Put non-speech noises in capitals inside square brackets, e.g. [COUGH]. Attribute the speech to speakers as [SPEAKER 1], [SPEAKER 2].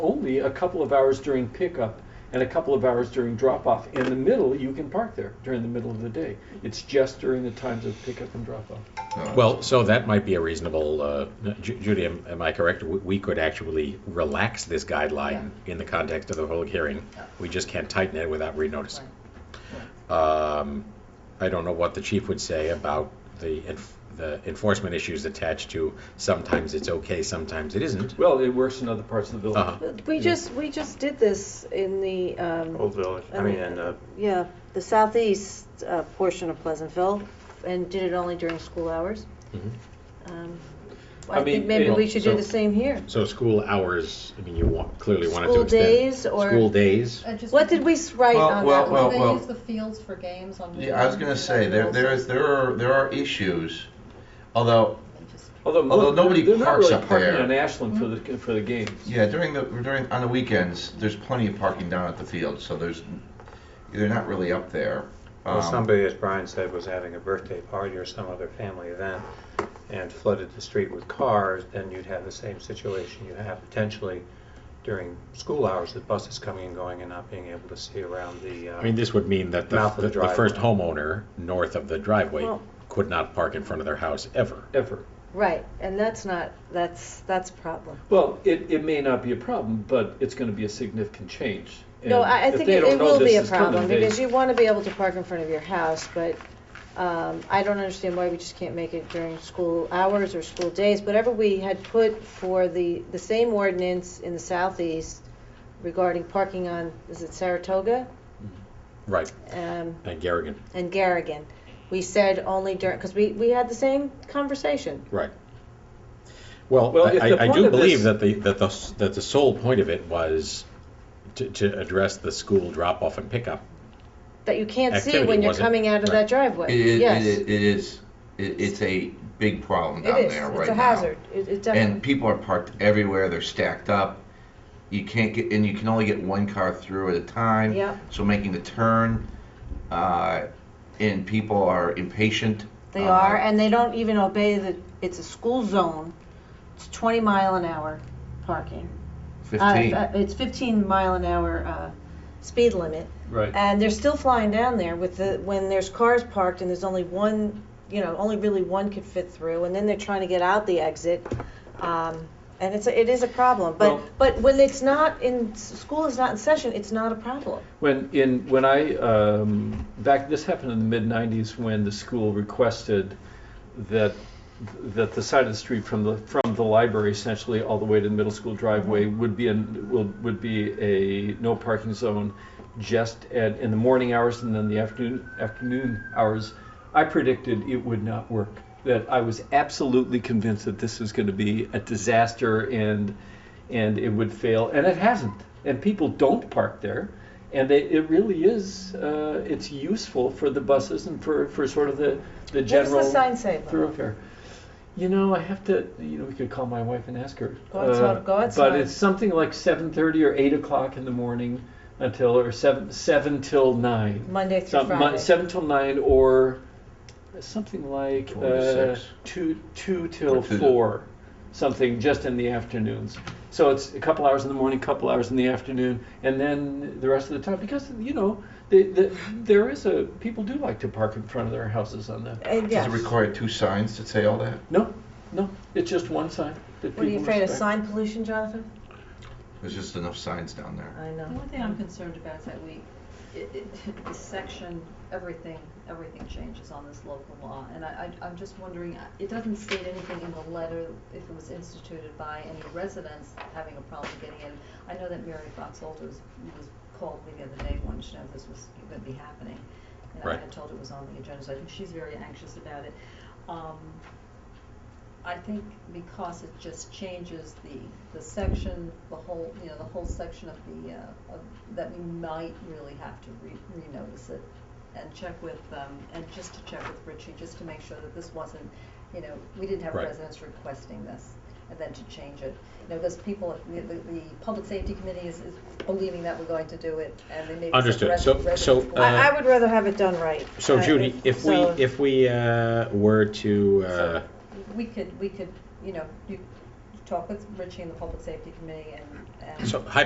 [SPEAKER 1] only a couple of hours during pickup and a couple of hours during drop off. In the middle, you can park there during the middle of the day. It's just during the times of pickup and drop off.
[SPEAKER 2] Well, so that might be a reasonable, uh, Ju- Judy, am am I correct? We- We could actually relax this guideline in the context of the public hearing. We just can't tighten it without renoticing. Um, I don't know what the chief would say about the enf- the enforcement issues attached to sometimes it's okay, sometimes it isn't.
[SPEAKER 1] Well, it works in other parts of the village.
[SPEAKER 2] Uh-huh.
[SPEAKER 3] We just, we just did this in the, um,
[SPEAKER 4] Oh.
[SPEAKER 5] Old Village, I
[SPEAKER 3] I
[SPEAKER 5] mean,
[SPEAKER 3] mean,
[SPEAKER 5] and, uh,
[SPEAKER 3] yeah, the southeast uh, portion of Pleasantville, and did it only during school hours.
[SPEAKER 4] Mm-hmm.
[SPEAKER 2] Mhm.
[SPEAKER 3] Um,
[SPEAKER 1] I
[SPEAKER 3] I think
[SPEAKER 1] mean,
[SPEAKER 3] maybe
[SPEAKER 1] it-
[SPEAKER 3] we should do
[SPEAKER 2] so-
[SPEAKER 3] the same here.
[SPEAKER 2] So school hours, I mean, you want, clearly wanted to
[SPEAKER 3] School
[SPEAKER 2] extend.
[SPEAKER 3] days or-
[SPEAKER 2] School days.
[SPEAKER 4] I just-
[SPEAKER 3] What did we s- write
[SPEAKER 4] Well,
[SPEAKER 3] on
[SPEAKER 4] well,
[SPEAKER 3] that
[SPEAKER 4] well,
[SPEAKER 3] one?
[SPEAKER 4] well. They use the fields for games on.
[SPEAKER 6] Yeah, I was gonna say, there, there is, there are, there are issues, although,
[SPEAKER 1] Although,
[SPEAKER 6] Although
[SPEAKER 1] look,
[SPEAKER 6] nobody
[SPEAKER 1] they're not
[SPEAKER 6] parks
[SPEAKER 1] really
[SPEAKER 6] up
[SPEAKER 1] parking
[SPEAKER 6] there.
[SPEAKER 1] on Ashland for the for the games.
[SPEAKER 6] yeah, during the, during, on the weekends, there's plenty of parking down at the field, so there's, they're not really up there.
[SPEAKER 5] well,
[SPEAKER 6] Um,
[SPEAKER 5] somebody, as Brian said, was having a birthday party or some other family event and flooded the street with cars, then you'd have the same situation you have potentially during school hours, with buses coming and going and not being able to see around the,
[SPEAKER 2] I mean,
[SPEAKER 5] uh,
[SPEAKER 2] this would mean that the,
[SPEAKER 5] Mouth of
[SPEAKER 2] the
[SPEAKER 5] the
[SPEAKER 2] the first
[SPEAKER 5] driveway.
[SPEAKER 2] homeowner north of the driveway
[SPEAKER 3] Well-
[SPEAKER 2] could not park in front of their house ever.
[SPEAKER 1] Ever.
[SPEAKER 3] Right, and that's not, that's, that's a problem.
[SPEAKER 1] Well, it, it may not be a problem, but it's going to be a significant change.
[SPEAKER 3] No,
[SPEAKER 1] And
[SPEAKER 3] I, I
[SPEAKER 1] if
[SPEAKER 3] think
[SPEAKER 1] they
[SPEAKER 3] it
[SPEAKER 1] don't
[SPEAKER 3] it
[SPEAKER 1] know
[SPEAKER 3] will
[SPEAKER 1] this
[SPEAKER 3] be a
[SPEAKER 1] is coming,
[SPEAKER 3] problem,
[SPEAKER 1] they-
[SPEAKER 3] because you want to be able to park in front of your house, but um, I don't understand why we just can't make it during school hours or school days. Whatever we had put for the, the same ordinance in the southeast regarding parking on, is it Saratoga
[SPEAKER 6] Mm-hmm.
[SPEAKER 2] Right,
[SPEAKER 3] um,
[SPEAKER 2] and Garrigan,
[SPEAKER 3] and Garrigan? We said only during, because we, we had the same conversation.
[SPEAKER 2] right. Well,
[SPEAKER 1] Well,
[SPEAKER 2] I-
[SPEAKER 1] if the
[SPEAKER 2] I, I
[SPEAKER 1] point
[SPEAKER 2] do
[SPEAKER 1] of this-
[SPEAKER 2] believe that the, that the, s- that the sole point of it was to, to address the school drop-off and pickup.
[SPEAKER 3] That you can't see
[SPEAKER 2] Activity
[SPEAKER 3] when you're
[SPEAKER 2] wasn't-
[SPEAKER 3] coming out of
[SPEAKER 2] right.
[SPEAKER 3] that driveway.
[SPEAKER 6] It, it,
[SPEAKER 3] Yes,
[SPEAKER 6] it it is, it, it's a big problem
[SPEAKER 3] it
[SPEAKER 6] down
[SPEAKER 3] is.
[SPEAKER 6] there right now.
[SPEAKER 3] It's a hazard. It it definitely.
[SPEAKER 6] And people are parked everywhere, they're stacked up. You can't get, and you can only get one car through at a time.
[SPEAKER 3] Yep.
[SPEAKER 6] So making the turn, uh, and people are impatient.
[SPEAKER 3] They
[SPEAKER 6] Uh,
[SPEAKER 3] are, and they don't even obey the, it's a school zone, it's 20 mile an hour parking. Uh,
[SPEAKER 6] Fifteen.
[SPEAKER 3] uh, It's 15 mile an hour uh, speed limit,
[SPEAKER 1] Right.
[SPEAKER 3] and they're still flying down there with the, when there's cars parked and there's only one, you know, only really one could fit through, and then they're trying to get out the exit. um, And it's, a- it is a problem, but,
[SPEAKER 1] Well-
[SPEAKER 3] but when it's not in, s- school is not in session, it's not a problem.
[SPEAKER 1] When in when I um, back this happened in the mid '90s when the school requested that that the side of the street from the from the library essentially all the way to the middle school driveway would be an would, would be a no parking zone just at in the morning hours and then the afternoon afternoon hours I predicted it would not work that I was absolutely convinced that this was going to be a disaster and and it would fail and it hasn't and people don't park there and they, it really is uh, it's useful for the buses and for, for sort of the the
[SPEAKER 3] What does
[SPEAKER 1] general
[SPEAKER 3] the sign say? Lou?
[SPEAKER 1] thoroughfare. You know, I have to. You know, we could call my wife and ask her. uh,
[SPEAKER 3] Go outside- go outside.
[SPEAKER 1] But it's something like seven thirty or eight o'clock in the morning until or seven seven till nine.
[SPEAKER 3] Monday through
[SPEAKER 1] Some- mon-
[SPEAKER 3] Friday.
[SPEAKER 1] Seven till nine or something like
[SPEAKER 6] Four to
[SPEAKER 1] uh,
[SPEAKER 6] six.
[SPEAKER 1] two two till
[SPEAKER 6] Or two to-
[SPEAKER 1] four, something just in the afternoons. So it's a couple hours in the morning, couple hours in the afternoon, and then the rest of the time because you know. The, the, there is a people do like to park in front of their houses on that.
[SPEAKER 3] And
[SPEAKER 6] Does
[SPEAKER 3] yes.
[SPEAKER 6] it require two signs to say all that?
[SPEAKER 1] No, no, it's just one sign that
[SPEAKER 3] What are you
[SPEAKER 1] people
[SPEAKER 3] afraid of,
[SPEAKER 1] respect.
[SPEAKER 3] sign pollution, Jonathan?
[SPEAKER 6] There's just enough signs down there.
[SPEAKER 3] I know.
[SPEAKER 4] The one thing I'm concerned about is that we, it, it, [LAUGHS] the section, everything, everything changes on this local law. And I, I, I'm just wondering, uh, it doesn't state anything in the letter if it was instituted by any residents having a problem getting in. I know that Mary Fox Older was, was called me the other day, wanted to know if this was gonna be happening. And I
[SPEAKER 2] Right.
[SPEAKER 4] had told her it was on the agenda, so I think she's very anxious about it. Um, I think because it just changes the, the section, the whole, you know, the whole section of the, uh, of, that we might really have to re, renotice it and check with, um, and just to check with Richie, just to make sure that this wasn't, you know, we didn't have
[SPEAKER 2] Right.
[SPEAKER 4] residents requesting this and then to change it. You know, those people, the, the, the public safety committee is, is believing that we're going to do it and they may.
[SPEAKER 2] Understood. So- so, uh,
[SPEAKER 3] I, I would rather have it done right.
[SPEAKER 2] So
[SPEAKER 3] I-
[SPEAKER 2] Judy, if we,
[SPEAKER 3] so-
[SPEAKER 2] if we uh, were to, uh,
[SPEAKER 4] We could, we could, you know, you talk with Richie and the public safety committee and, and.
[SPEAKER 2] so